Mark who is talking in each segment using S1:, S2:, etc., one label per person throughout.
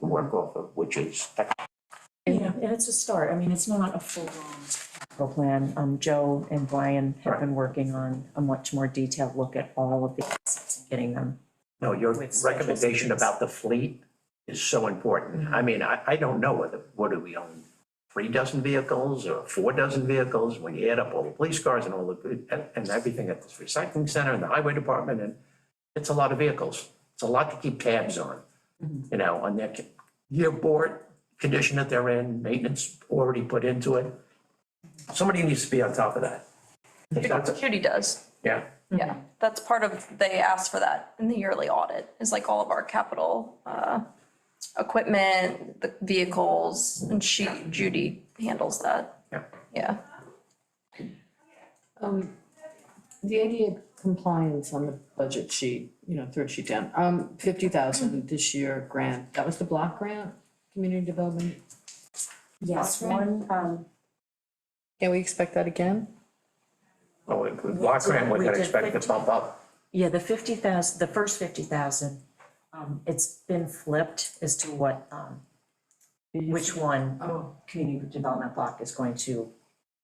S1: work off of, which is
S2: Yeah, and it's a start. I mean, it's not a full-on capital plan. Um, Joe and Brian have been working on a much more detailed look at all of these, assets and getting them.
S1: No, your
S2: With special
S1: recommendation
S2: savings.
S1: about the fleet is so important. I mean, I, I don't know whether, what do we own? Three dozen vehicles or four dozen vehicles, when you add up all the police cars and all the, and, and everything at this recycling center and the highway department, and it's a lot of vehicles. It's a lot to keep tabs on,
S2: Mm-hmm.
S1: you know, on their ca- year board, condition that they're in, maintenance already put into it. Somebody needs to be on top of that. It's not to-
S3: Judy does,
S1: Yeah,
S3: yeah. That's part of, they asked for that in the yearly audit, is like all of our capital, uh, equipment, the vehicles, and she, Judy handles that,
S1: yeah.
S3: yeah.
S4: Um, the ADA compliance on the budget sheet, you know, third sheet down, um, fifty thousand this year grant, that was the block grant, community development.
S2: Yes, one, um.
S4: Can we expect that again?
S1: Oh, and with block grant, we
S2: We
S1: can
S2: did
S1: expect to
S2: fifty.
S1: bump up.
S2: Yeah, the fifty thousand, the first fifty thousand, um, it's been flipped as to what, um, which one
S4: Oh.
S2: community development block is going to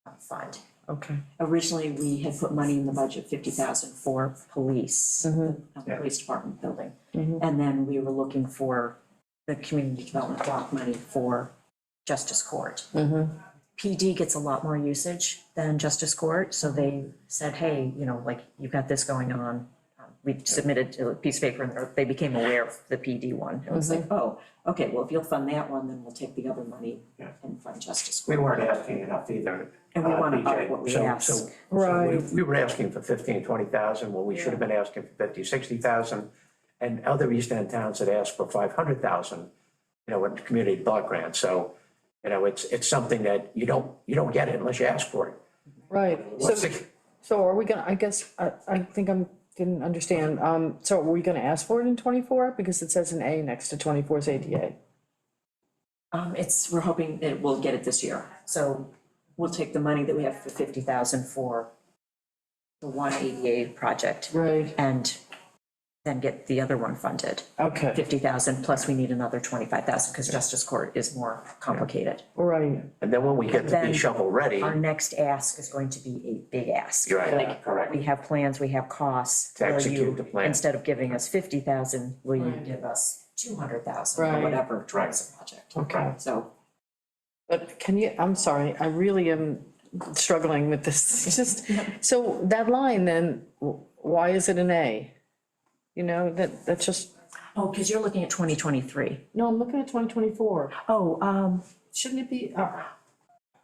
S2: uh, fund.
S4: Okay.
S2: Originally, we had put money in the budget, fifty thousand for police, uh,
S1: Yeah.
S2: police department building. And then we were looking for the community development block money for justice court. PD gets a lot more usage than justice court, so they said, hey, you know, like, you've got this going on. Um, We submitted a piece of paper, and or they became aware of the PD one. It was like, oh, okay, well, if you'll fund that one, then we'll take the other money
S1: Yeah.
S2: and fund justice court.
S1: We weren't asking enough either.
S2: And we
S1: uh,
S2: wanna
S1: BJ.
S2: up what we
S1: So- so-
S2: ask.
S1: so we-
S4: Right.
S1: We were asking for fifteen, twenty thousand, well, we should have been asking for fifty, sixty thousand. And other East End towns had asked for five hundred thousand, you know, with community block grants, so, you know, it's, it's something that you don't, you don't get it unless you ask for it.
S4: Right,
S1: What's
S4: so,
S1: the-
S4: so are we gonna, I guess, I, I think I'm, didn't understand, um, so are we gonna ask for it in twenty-four? Because it says an A next to 24's ADA.
S2: Um, it's, we're hoping that we'll get it this year, so we'll take the money that we have for fifty thousand for the one ADA project
S4: Right.
S2: and then get the other one funded.
S4: Okay,
S2: Fifty thousand, plus we need another twenty-five thousand, because justice court is more complicated.
S4: right,
S1: And then when we get to be
S2: Then-
S1: shovel ready,
S2: Our next ask is going to be a big ask.
S1: you're right, correct.
S2: We have plans, we have costs.
S1: To
S2: Will
S1: execute
S2: you-
S1: the plan.
S2: Instead of giving us fifty thousand, will you
S4: Right.
S2: give us two hundred thousand or
S4: Right.
S2: whatever towards the project?
S4: okay.
S2: So
S4: But can you, I'm sorry, I really am struggling with this, It's just, so that line then, wh- why is it an A? You know, that, that's just,
S2: Oh, because you're looking at twenty twenty-three.
S4: no, I'm looking at twenty twenty-four,
S2: Oh, um,
S4: shouldn't it be, uh,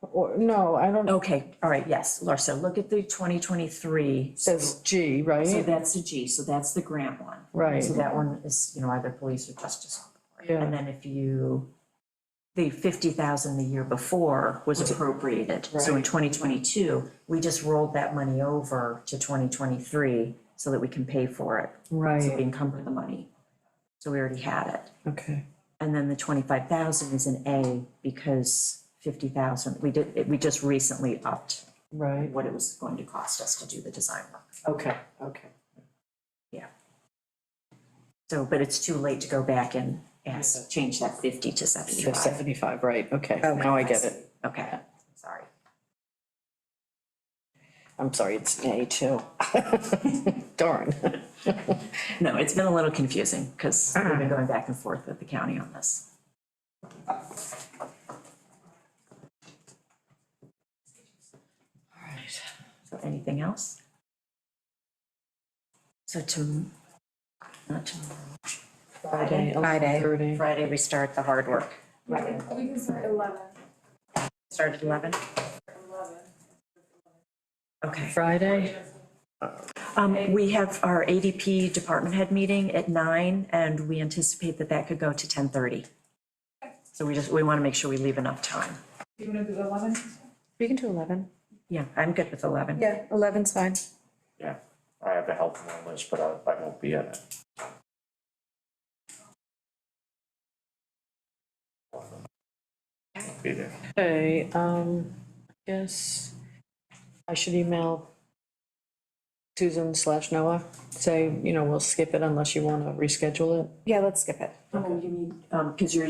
S4: or, no, I don't, it
S2: okay, all right, yes, Larsa, look at the twenty twenty-three.
S4: says G,
S2: So
S4: right?
S2: that's the G, so that's the grant one.
S4: Right.
S2: So that one is, you know, either police or justice.
S4: Yeah.
S2: And then if you, the fifty thousand the year before was appropriated. So in
S4: Right.
S2: twenty twenty-two, we just rolled that money over to twenty twenty-three so that we can pay for it. So we
S4: Right,
S2: encumber the money. So we already had it.
S4: okay,
S2: And then the twenty-five thousand is an A because fifty thousand, we did, we just recently upped
S4: right,
S2: what it was going to cost us to do the design work.
S4: okay, okay.
S2: So, but it's too late to go back and ask, change that fifty to
S4: So
S2: seventy-five.
S4: seventy-five, right, okay, Oh, now I get it,
S2: Okay, sorry.
S4: I'm sorry, it's an A too. Darn,
S2: No, it's been a little confusing because we've been going back and forth with the county on this. So anything else? So to, not tomorrow.
S4: Friday,
S2: Friday.
S4: 11:30.
S2: Friday, we start the hard work. Right.
S5: We can start eleven.
S2: Start at eleven? Okay.
S4: Friday,
S2: Um, we have our ADP department head meeting at nine, and we anticipate that that could go to ten thirty. So we just, we want to make sure we leave enough time.
S5: You wanna do eleven?
S4: we can do eleven.
S2: Yeah, I'm good with eleven.
S6: Yeah, eleven's fine.
S1: Yeah, I have a help list, but I, I won't be at it. Be there.
S4: Okay, um, I guess I should email Susan slash Noah, say, you know, we'll skip it unless you wanna reschedule it.
S6: Yeah, let's skip it.
S2: Oh, you mean, um, because you're